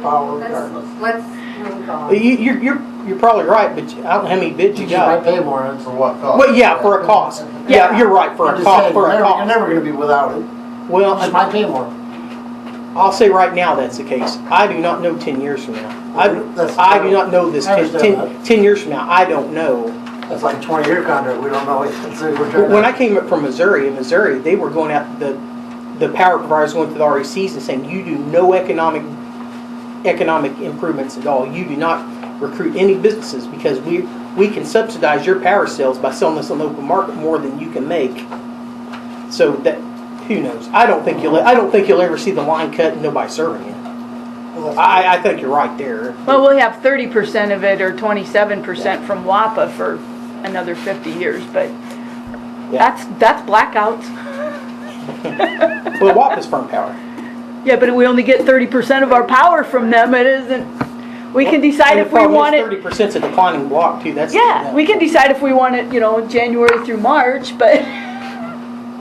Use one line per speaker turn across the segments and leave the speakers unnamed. power
Let's,
regardless.
let's move
Well,
on.
You, you're, you're, you're probably right, but I don't know how many bids you
You might
got.
pay more and for what cost.
Well, yeah, for a cost. Yeah, you're right, for
I'm
a
just
cost,
saying,
for
you're
a
never- You're
cost.
never gonna be without it.
Well,
You just
I-
might pay more.
I'll say right now that's the case. I do not know ten years from now. I,
That's-
I do not know this
I
ten,
understand
ten, ten years from now, I don't know.
That's like twenty-year contract, we don't know, what- so we're
But
trying to.
When I came up from Missouri, in Missouri, they were going out, the, the power providers went to the RECs and saying, you do no economic, economic improvements at all. You do not recruit any businesses because we, we can subsidize your power sales by selling this on the open market more than you can make. So that, who knows? I don't think you'll, I don't think you'll ever see the line cut and nobody serving it.
Well, that's-
I, I think you're right there.
Well, we'll have thirty percent of it or twenty-seven percent from WAPA for another fifty years, but that's, that's blackouts.
Well, WAP is firm power.
Yeah, but we only get thirty percent of our power from them, it isn't, we can decide if we want it.
Thirty percent's a declining block too, that's.
Yeah, we can decide if we want it, you know, January through March, but,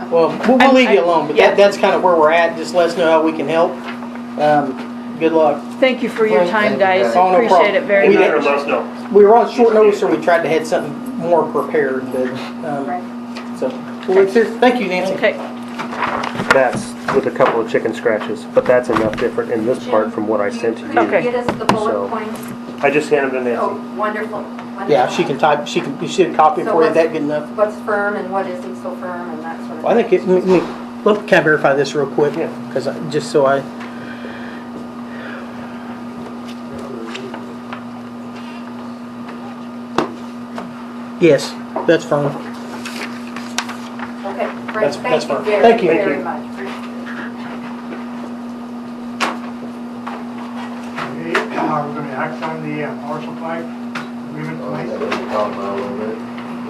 Well, we'll, we'll
I'm-
leave you
I-
alone, but
yeah.
that, that's kind of where we're at, just let us know how we can help. Um, good luck.
thank you for your
Thank
time,
you,
guys,
guys. Oh,
no
appreciate
problem.
it very
We
much.
did-
Let us know.
We were on short notice, so we tried to have something more prepared, but, um,
Right.
so. Well, it's- Thank you, Nancy.
Okay,
That's with a couple of chicken scratches, but that's enough different in this part from what I sent to
Jim, could
you.
you get us the bullet
So-
points?
I just handed them to
Oh,
Nancy.
wonderful. wonderful.
Yeah, she can type, she can, she can copy it
So
for you,
what's-
that good enough?
What's firm and what isn't so firm and that sort of
Well, I think it, let me, let me kind of verify this real quick,
Yeah.
because I, just so I. Yes, that's fine.
Okay, great,
That's-
thank
that's
you
fine.
very,
Thank you.
very much.
Okay, uh, we're gonna act on the uh, power supply agreement
Oh, yeah,
tonight.
we were talking about a little bit.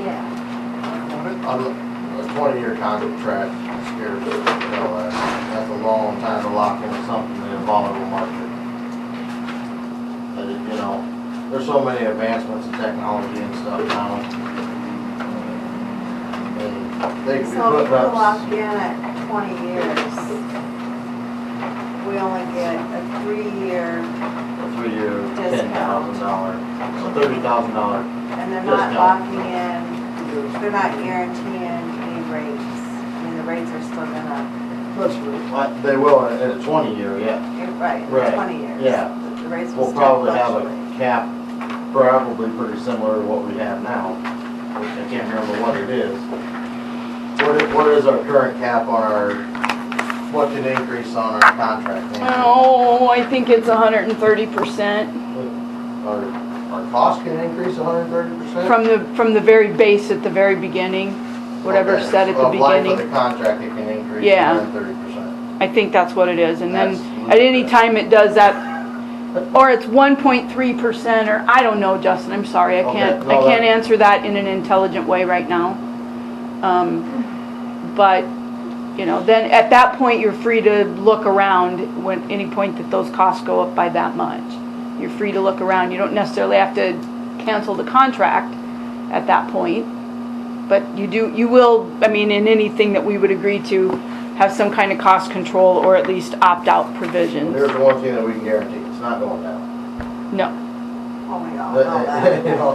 Yeah,
On it.
On the- a twenty-year contract scares the hell out of me. uh, That's a long time to lock in something in a volatile market. But, it- you know, there's so many advancements in technology and stuff now. And They could be
So if
putting
we're
up,
locked in at twenty years, we only get a three-year,
a three-year, ten thousand dollar, a thirty thousand dollar.
and they're
Yes,
not
no.
locking in, they're not guaranteeing any rates. I mean, the rates are still gonna,
They will in in a twenty-year, yeah.
you're right,
Right,
twenty years.
yeah.
The- The rates will
We'll
still
probably have
fluctuate.
a cap, probably pretty similar to what we have now, which I can't remember what it is. What is, what is our current cap on our, what can increase on our contract?
oh, I think it's hundred and thirty percent
Our, our cost can increase hundred and thirty percent?
from the, from the very base at the very beginning, whatever said at the beginning.
Of life of the contract, it can increase
Yeah.
hundred and thirty percent.
I think that's what it is, and then
That's-
at any time it does that, or it's one point three percent, or I don't know, Justin, I'm sorry, I can't,
Okay,
I
no,
can't
that-
answer that in an intelligent way right now. Um, but, you know, then at that point, you're free to look around when, any point that those costs go up by that much. You're free to look around, you don't necessarily have to cancel the contract at that point. But you do, you will, I mean, in anything that we would agree to, have some kind of cost control or at least opt-out
There's
provisions.
the one thing that we can guarantee, it's not going down.
No.
Oh, we all
But,
know that.
you know,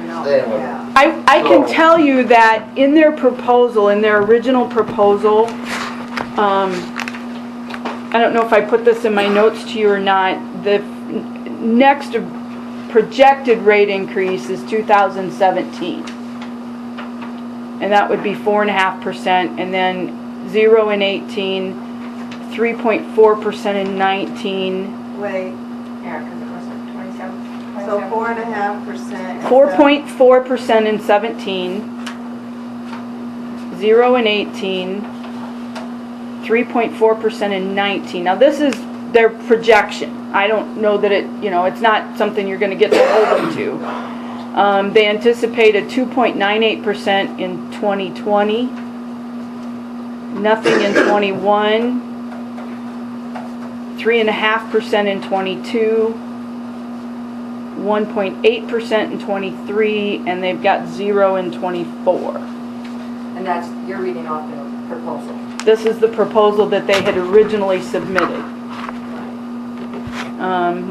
We know,
Staying with it.
yeah.
I, I can
So-
tell you that in their proposal, in their original proposal, um, I don't know if I put this in my notes to you or not, the f- next projected rate increase is 2017. And that would be 4.5%, and then 0 in 18, 3.4% in 19,
Wait,
yeah, because it was like twenty-seven.
so
27.
four and a half percent.
4.4% in 17, 0 in 18, 3.4% in 19. Now, this is their projection. I don't know that it, you know, it's not something you're gonna get to hold them to. Um, they anticipate a 2.98% in 2020, nothing in 21, 3.5% in 22, 1.8% in 23, and they've got zero in 24.
And that's, you're reading off the proposal.
This is the proposal that they had originally submitted. Um,